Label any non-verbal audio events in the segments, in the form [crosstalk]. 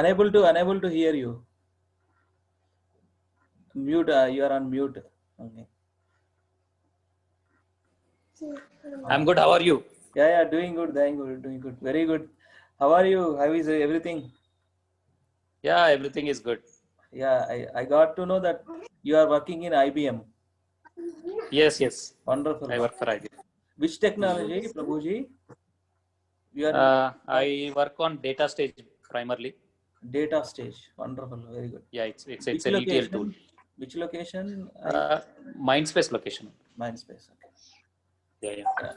unable to unable to hear you mute uh, you are on mute okay I'm good. How are you? yeah yeah doing good doing good doing good very good how are you how is everything Yeah, everything is good. yeah i, I got to know that you are working in ibm Yes, yes. Uh, wonderful I work for IBM. which technology prabhuji you are Uh, I work on data stage primarily. data stage wonderful very good Yeah, it's it's it's which an ETL location tool. which location Uh, Mindspace location. mindspace okay. Yeah, yeah,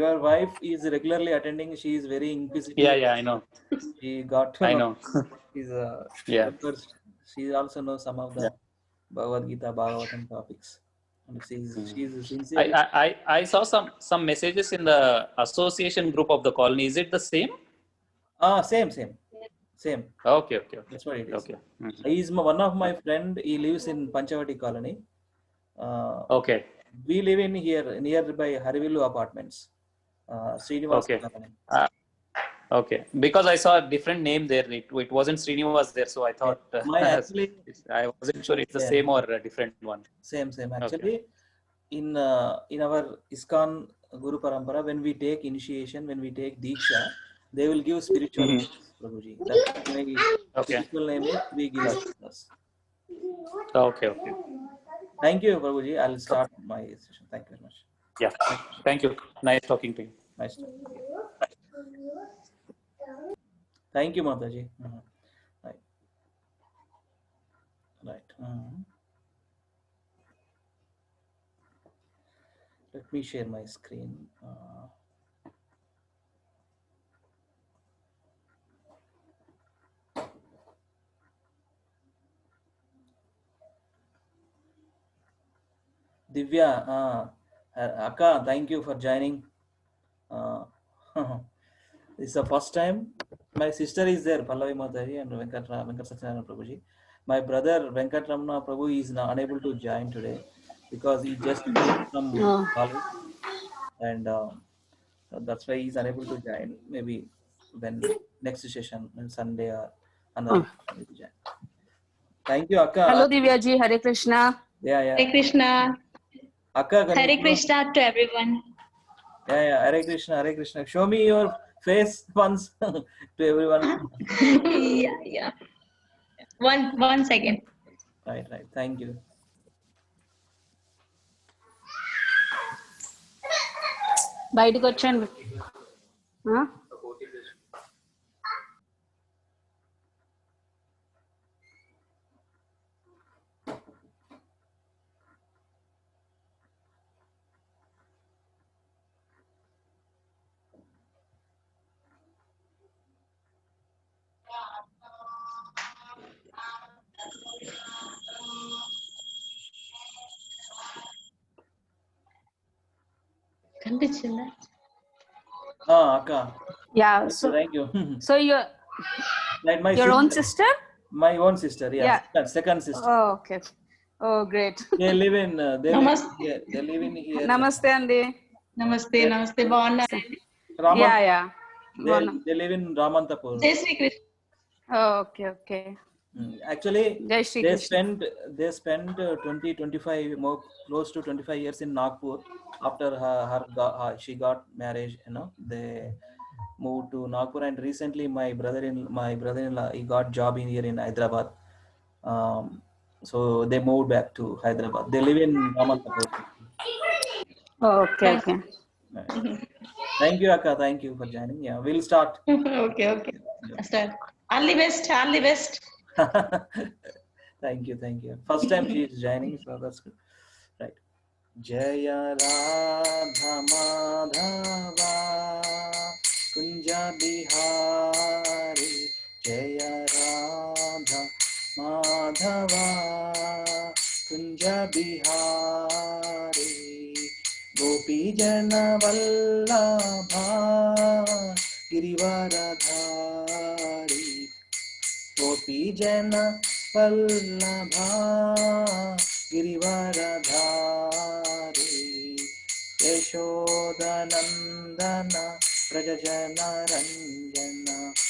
your wife is regularly attending she is very inquisitive yeah, yeah. I know. she got to I know. [laughs] she's a Yeah. first she also knows some of the bhagavad gita bhagavatam topics and she's Hmm. she's sincere I, I, I- I saw some some messages in the association group of the colony. Is it the same? ah same same same Okay, okay, okay, that's what it is okay, Mhm. He is my- one of my friend he lives in panchavati colony uh, okay, we live in here nearby harivilu apartments uh, srinivas Okay. colony okay. Because I saw a different name there. It, it wasn't Srinivas there, so I thought uh, [laughs] my actually I wasn't sure it's the Yeah. same or a different one. same same actually in uh, in our iskan guru parampara when we take initiation when we take diksha they will give spiritual Mhm. names, prabhuji that's why Okay, spiritual name is we give us. okay, okay. thank you prabhuji i'll start my session thank you very much Yeah. Thank you. Nice talking to you. nice talking to you. thank you mataji Mhm. right right Mhm. let me share my screen uh, Divya uh, అక్క thank you for joining Uh, [laughs] it's the first time my sister is there Pallavi mataji and Venkata Venkata Satyanarayana Prabhuji my brother Venkata Ramana Prabhu is unable to join today because he just from college and that's why is unable to join maybe then next session Sunday అన్న thank you అక్క Hello, Divya ji. Hare Krishna. Yeah yeah Hare Krishna. అక్క Hare కనీసం- Krishna to everyone. Yeah, yeah. Hare Krishna, Hare Krishna. Show me your face once [laughs] to everyone. yeah, yeah. One one second. Right, right. Thank you. బయటకు వచ్చాను Huh? కనిపించిందా Ah, Akka. Yeah. So, So, thank you. [laughs] so your like my your own sister- sister? My own sister. Yeah. Yeah. Second, second sister. Oh, okay. Oh, great. They live in. Uh, they live Namaste. here. They live in here. Namaste, Andy. నమస్తే నమస్తే బాగున్నారు Raman- Yeah, yeah. They, they live in Ramantapur. జై Shri Krishna Oh, okay, okay. Mm. Actually, Jai Shri they Krishna. spent they spent uh, 20, 25 more close to 25 years in Nagpur. After her, her, go- her she got marriage, you know, they moved to Nagpur. And recently, my brother in my brother-in-law he got job in here in Hyderabad. Um, so they moved back to Hyderabad. They live in Ramantapur. Oh, okay, okay. Thank you, Akka. Thank you for joining. Yeah, we'll start. [laughs] Okay okay sir all the best all the best [laughs] thank you, thank you. First time she is joining, so that's good. Right. Jaya Radha Madhava Kunja Bihari Jaya Radha Madhava Kunja Bihari Gopi Jana Vallabha Girivaradhari Gopijana Vallabha Girivardhari यशोदनन्दन व्रजजन Ranjan